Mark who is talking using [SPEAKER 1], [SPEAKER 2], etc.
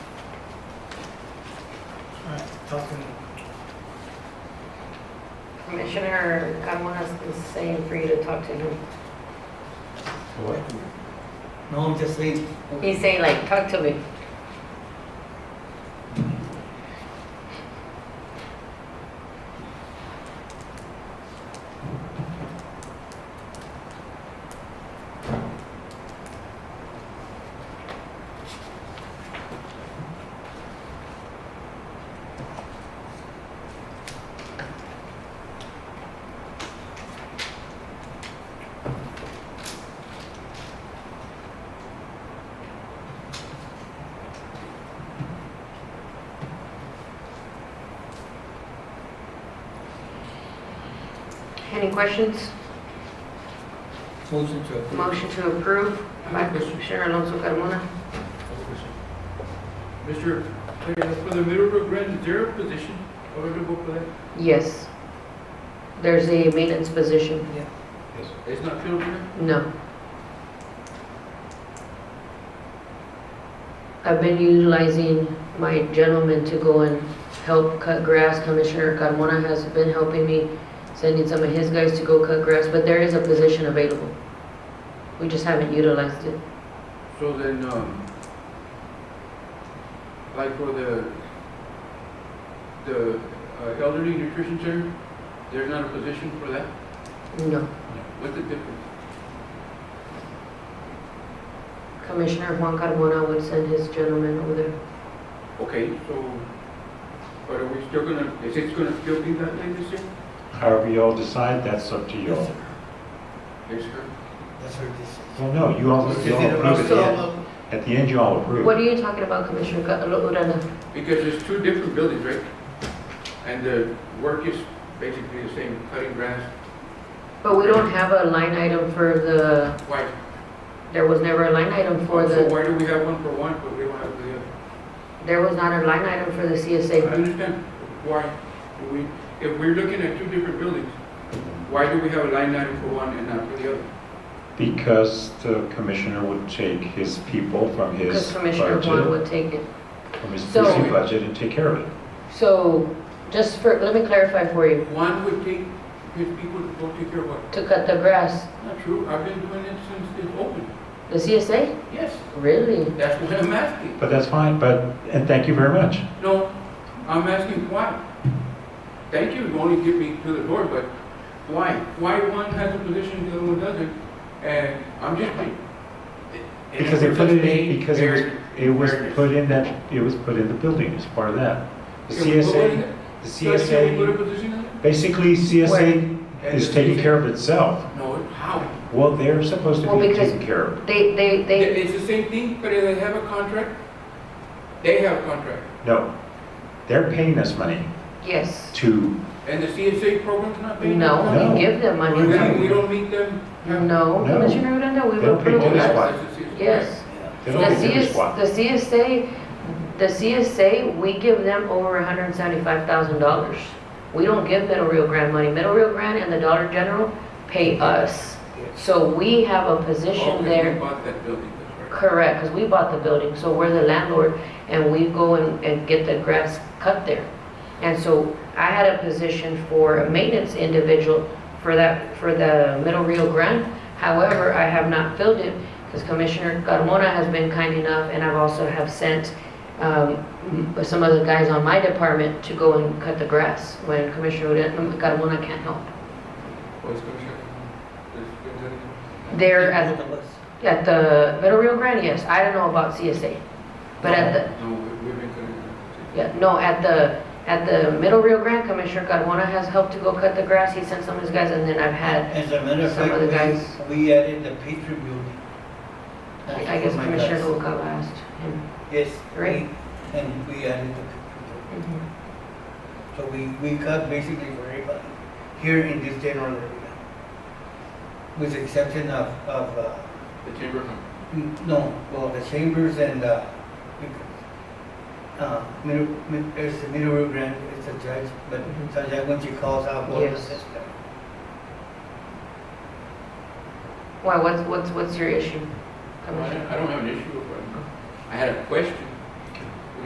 [SPEAKER 1] nothing,
[SPEAKER 2] Commissioner Carmonas is saying for you to talk to him.
[SPEAKER 1] no, I'm just saying,
[SPEAKER 2] He's saying like, talk to me. Any questions?
[SPEAKER 1] motion to approve.
[SPEAKER 2] Motion to approve by Commissioner Alonso Carmona.
[SPEAKER 3] Mr. Mayor, for the middle road grant, is there a position available for that?
[SPEAKER 2] Yes. There's a maintenance position.
[SPEAKER 3] Yes. It's not filled yet?
[SPEAKER 2] No. I've been utilizing my gentleman to go and help cut grass. Commissioner Carmona has been helping me, sending some of his guys to go cut grass, but there is a position available. We just haven't utilized it.
[SPEAKER 3] So then, um, like for the, the uh, elderly nutrition center, there's not a position for that?
[SPEAKER 2] No.
[SPEAKER 3] What's the difference?
[SPEAKER 2] Commissioner Juan Carmona would send his gentleman over there.
[SPEAKER 3] Okay, so, but are we still gonna, is it gonna still be that thing this year?
[SPEAKER 4] However you all decide, that's up to you
[SPEAKER 1] Yes,
[SPEAKER 4] all.
[SPEAKER 1] sir.
[SPEAKER 3] Yes, sir.
[SPEAKER 1] That's her decision.
[SPEAKER 4] Well, no, you all, you all approve at the end. At the end, you all
[SPEAKER 2] What
[SPEAKER 4] approve.
[SPEAKER 2] are you talking about, Commissioner Ca- Urana?
[SPEAKER 3] Because there's two different buildings, right? And the work is basically the same, cutting grass,
[SPEAKER 2] But we don't have a line item for the,
[SPEAKER 3] white.
[SPEAKER 2] there was never a line item for
[SPEAKER 3] So
[SPEAKER 2] the,
[SPEAKER 3] why do we have one for one, but we don't have the other?
[SPEAKER 2] there was not a line item for the
[SPEAKER 3] I
[SPEAKER 2] CSA.
[SPEAKER 3] understand. Why? do we, if we're looking at two different buildings, why do we have a line item for one and not for the other?
[SPEAKER 4] Because the commissioner would take his people from
[SPEAKER 2] Because
[SPEAKER 4] his
[SPEAKER 2] Commissioner Juan
[SPEAKER 4] budget,
[SPEAKER 2] would take it.
[SPEAKER 4] from his
[SPEAKER 2] So-
[SPEAKER 4] busy budget and take care of it.
[SPEAKER 2] So, just for, let me clarify for you,
[SPEAKER 3] One would take his people to go take care of what?
[SPEAKER 2] to cut the grass,
[SPEAKER 3] Not true. I've been doing it since it's open.
[SPEAKER 2] the CSA?
[SPEAKER 3] Yes,
[SPEAKER 2] Really?
[SPEAKER 3] that's what I'm asking.
[SPEAKER 4] But that's fine, but, and thank you very much.
[SPEAKER 3] No, I'm asking why. Thank you, you only give me to the door, but why? Why one has a position, the other one doesn't? And I'm just.
[SPEAKER 4] Because they put it in, because it was, it was
[SPEAKER 3] fairness.
[SPEAKER 4] put in that, it was put in the building as part of that. The
[SPEAKER 3] Can we put it in there? So
[SPEAKER 4] CSA, the
[SPEAKER 3] can we put a
[SPEAKER 4] CSA,
[SPEAKER 3] position in there?
[SPEAKER 4] basically
[SPEAKER 3] Where?
[SPEAKER 4] CSA is taking care of itself.
[SPEAKER 3] No, how?
[SPEAKER 4] Well, they're supposed to
[SPEAKER 2] Well,
[SPEAKER 4] be
[SPEAKER 2] because-
[SPEAKER 4] taken care of.
[SPEAKER 2] They, they, they,
[SPEAKER 3] It's the same thing, but if they have a contract, they have a contract.
[SPEAKER 4] No, they're paying us money
[SPEAKER 2] yes.
[SPEAKER 4] to
[SPEAKER 3] And the CSA program's not paying them?
[SPEAKER 2] No,
[SPEAKER 4] No.
[SPEAKER 2] we give them money.
[SPEAKER 3] Then we don't meet them?
[SPEAKER 2] No,
[SPEAKER 4] No.
[SPEAKER 2] Commissioner Uranda, we
[SPEAKER 4] They don't pay
[SPEAKER 2] approve
[SPEAKER 4] That's
[SPEAKER 2] that.
[SPEAKER 4] taxes. why.
[SPEAKER 3] That's the CSA.
[SPEAKER 2] Yes.
[SPEAKER 4] They
[SPEAKER 2] The
[SPEAKER 4] don't get their
[SPEAKER 2] CS,
[SPEAKER 4] spot.
[SPEAKER 2] the CSA, the CSA, we give them over hundred and seventy-five thousand dollars. We don't give Middle Rio Grande money. Middle Rio Grande and the Dollar General pay us. So we have a position
[SPEAKER 3] Okay, we
[SPEAKER 2] there,
[SPEAKER 3] bought that building, that's right.
[SPEAKER 2] correct, because we bought the building, so we're the landlord, and we go and, and get the grass cut there. And so I had a position for a maintenance individual for that, for the Middle Rio Grande. However, I have not filled it because Commissioner Carmona has been kind enough and I've also have sent um, m- some of the guys on my department to go and cut the grass when Commissioner Ure- Carmona can't help.
[SPEAKER 3] Well, it's gonna shut- it's gonna-
[SPEAKER 2] There at,
[SPEAKER 1] Both of us.
[SPEAKER 2] at the Middle Rio Grande, yes, I don't know about CSA. But at the,
[SPEAKER 3] No, we- we've been cutting
[SPEAKER 2] Yeah, no, at the, at the Middle Rio Grande, Commissioner Carmona has helped to go cut the grass, he sent some of his guys, and then I've had,
[SPEAKER 1] As a matter of
[SPEAKER 2] Some of the
[SPEAKER 1] fact,
[SPEAKER 2] guys-
[SPEAKER 1] we, we added the Patriot building. That's
[SPEAKER 2] I guess
[SPEAKER 1] for my
[SPEAKER 2] Commissioner
[SPEAKER 1] guys.
[SPEAKER 2] Noguera asked him.
[SPEAKER 1] Yes,
[SPEAKER 2] Right.
[SPEAKER 1] we- and we added the Patriot building. So we, we cut basically for everybody here in this general area. With the exception of, of, uh,
[SPEAKER 3] the chamber.
[SPEAKER 1] Mm, No, well, the chambers and, uh, uh, middle, mid, there's the middle room grand, it's a judge, but
[SPEAKER 2] Mhm.
[SPEAKER 1] the judge, once she calls out, what
[SPEAKER 2] Yes.
[SPEAKER 1] is this?
[SPEAKER 2] Why, what's, what's, what's your issue?
[SPEAKER 3] I don't
[SPEAKER 2] Commissioner?
[SPEAKER 3] I don't have an issue with it. I had a question.